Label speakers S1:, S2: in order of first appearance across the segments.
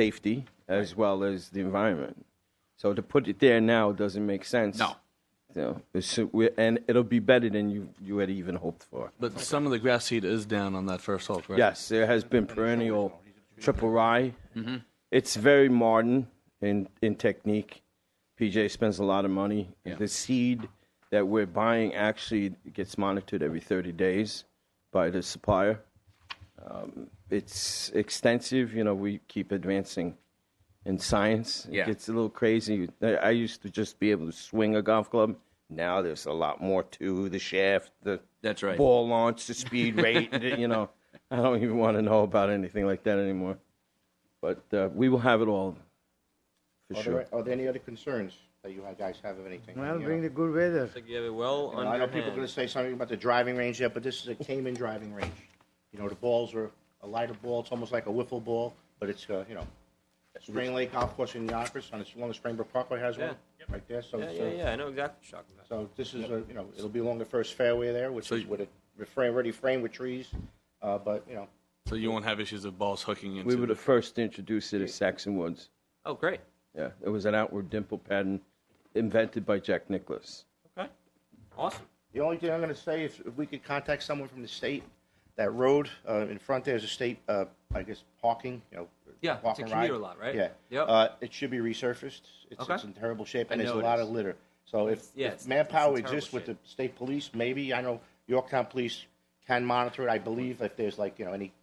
S1: safety as well as the environment. So to put it there now doesn't make sense.
S2: No.
S1: You know, it's, we're- and it'll be better than you, you had even hoped for.
S3: But some of the grass seed is down on that first hole, correct?
S1: Yes, there has been perennial triple rye. It's very modern in, in technique. PJ spends a lot of money. The seed that we're buying actually gets monitored every 30 days by the supplier. Um, it's extensive. You know, we keep advancing in science. It
S2: Yeah.
S1: gets a little crazy. I I used to just be able to swing a golf club. Now there's a lot more to the shaft, the
S2: That's right.
S1: ball launch, the speed rate. you know, I don't even want to know about anything like that anymore. But uh, we will have it all for
S4: Are
S1: sure.
S4: there, are there any other concerns that you guys have of anything?
S5: Well,
S4: You
S5: bring
S4: know,
S5: the good weather.
S6: Like you have it well
S4: I know people are going to
S6: underhand.
S4: say something about the driving range there, but this is a Cayman driving range. You know, the balls are a lighter ball. It's almost like a wiffle ball, but it's, uh, you know, Spring Lake Golf Course in Yonkers, on its along the Springbrook Parkway has one right there. So,
S6: Yeah,
S4: it's,
S6: yeah,
S4: uh,
S6: yeah. I know exactly what you're talking about.
S4: so this is a, you know, it'll be along the first fairway there, which
S3: So
S4: is
S3: you-
S4: with a refrain, already framed with trees. Uh, but you know,
S3: So you won't have issues of balls hooking into.
S1: We were the first to introduce it at Saxon Woods.
S6: Oh, great.
S1: Yeah, it was an outward dimple pattern invented by Jack Nicklaus.
S6: Okay. Awesome.
S4: The only thing I'm going to say, if, if we could contact someone from the state, that road uh, in front there is a state, uh, I guess, parking, you know.
S6: Yeah,
S4: walk
S6: it's a
S4: and
S6: commuter
S4: ride.
S6: lot, right?
S4: Yeah.
S6: Yep.
S4: Uh, it should be resurfaced. It's,
S6: Okay.
S4: it's in terrible shape, and
S6: I
S4: there's a
S6: know it
S4: lot
S6: is.
S4: of litter. So if,
S6: yeah,
S4: if
S6: it's- it's in
S4: manpower
S6: terrible
S4: exists with the
S6: shape.
S4: state police, maybe, I know Yorktown Police can monitor it, I believe, if there's like, you know, any,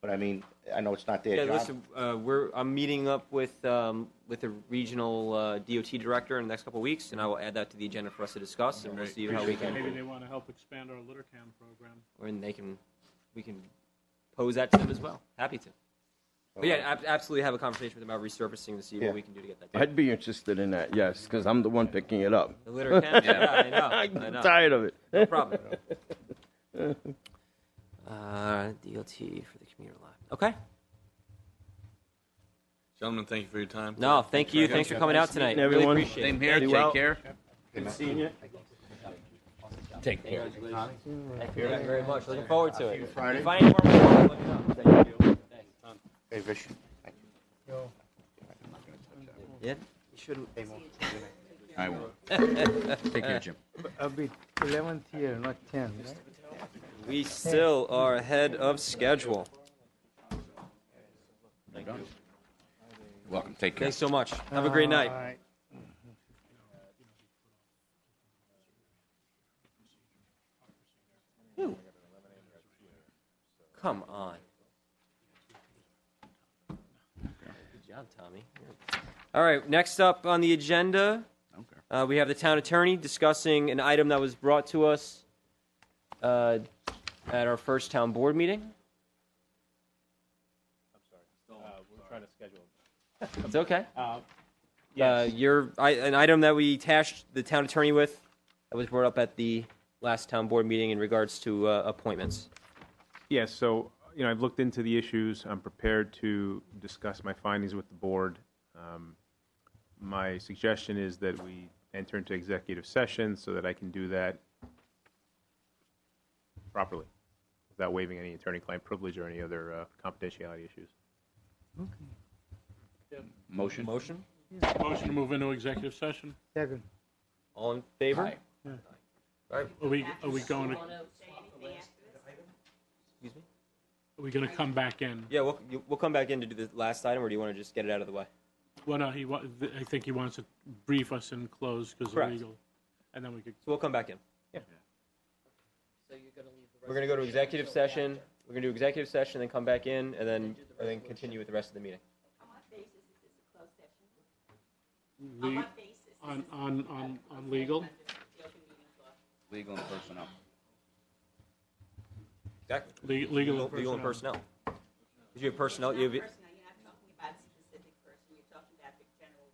S4: but I mean, I know it's not their
S6: Yeah,
S4: job.
S6: listen, uh, we're, I'm meeting up with, um, with the regional uh, DOT director in the next couple of weeks, and I will add that to the agenda for us to discuss, and we'll see how we
S7: Maybe
S6: can,
S7: they want to help expand our litter cam program.
S6: or they can, we can pose that to them as well. Happy to. But yeah, ab- absolutely have a conversation with them about resurfacing to see
S4: Yeah.
S6: what we can do to get that done.
S1: I'd be interested in that, yes, because I'm the one picking it up.
S6: The litter can, yeah, I know, I
S1: I'm
S6: know.
S1: tired of it.
S6: No problem. Uh, DOT for the commuter lot. Okay.
S3: Gentlemen, thank you for your time.
S6: No, thank you. Thanks for coming out tonight.
S1: meeting
S6: Really
S1: everyone.
S6: appreciate it.
S2: Same here.
S1: Be
S2: Take
S1: well.
S2: care.
S1: Good seeing you.
S2: Take care.
S6: Thank you very much. Looking forward to it.
S4: Friday.
S6: If I need more, let me know. Thank you.
S4: Hey, Rich.
S6: Yeah.
S2: I will. Take care, Jim.
S5: I'll be 11th year, not 10. right?
S6: We still are ahead of schedule.
S2: Welcome. Take care.
S6: Thanks so much. Have a great night.
S5: Alright.
S6: Come on. Good job, Tommy. All right, next up on the agenda, uh, we have the town attorney discussing an item that was brought to us uh, at our first town board meeting.
S7: Uh, We're trying to schedule.
S6: It's okay. Uh,
S7: Yes,
S6: your, I, an item that we tasked the town attorney with that was brought up at the last town board meeting in regards to uh, appointments.
S8: Yes, so, you know, I've looked into the issues. I'm prepared to discuss my findings with the board. Um, My suggestion is that we enter into executive session so that I can do that properly, without waiving any attorney-client privilege or any other uh, confidentiality issues.
S2: Motion.
S6: Motion?
S7: motion to move into executive session.
S5: Second.
S6: All in favor?
S2: Aye.
S7: Are we, are we going to, are
S6: Excuse me?
S7: we going to come back in?
S6: Yeah, we'll, you- we'll come back in to do the last item, or do you want to just get it out of the way?
S7: Well, no, he, wa- th- I think he wants to brief us in close because of
S6: Correct.
S7: legal. And then we could,
S6: So we'll come back in. We're going to go to executive session. We're going to do executive session, then come back in, and then, and then continue with the rest of the meeting.
S7: le- on, on, on, on legal,
S2: Legal and personnel.
S6: Exactly.
S7: le- legal
S6: Legal legal and personnel. If you have personnel, you have,
S9: Personnel, you're not talking about a specific person, you're talking about the general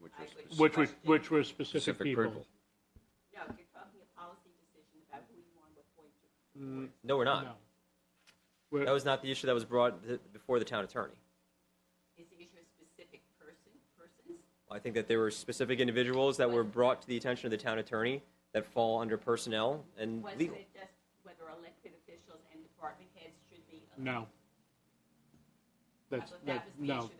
S9: appointments.
S2: Which was specific.
S7: Which was, which were specific
S2: Specific
S7: people.
S2: purpose.
S9: No, you're talking a policy decision about who you want to appoint to.
S7: Mm.
S6: no, we're
S7: No.
S6: not.
S7: We're-
S6: That was not the issue that was brought th- before the town attorney.
S9: Is the issue a specific person, persons?
S6: I think that there were specific individuals that were brought to the attention of the town attorney that fall under personnel and
S9: Was
S6: Mm, legal.
S9: it just whether elected officials and department heads should be?
S7: No. That's,
S9: thought that
S7: that,
S9: was the
S7: no.
S9: issue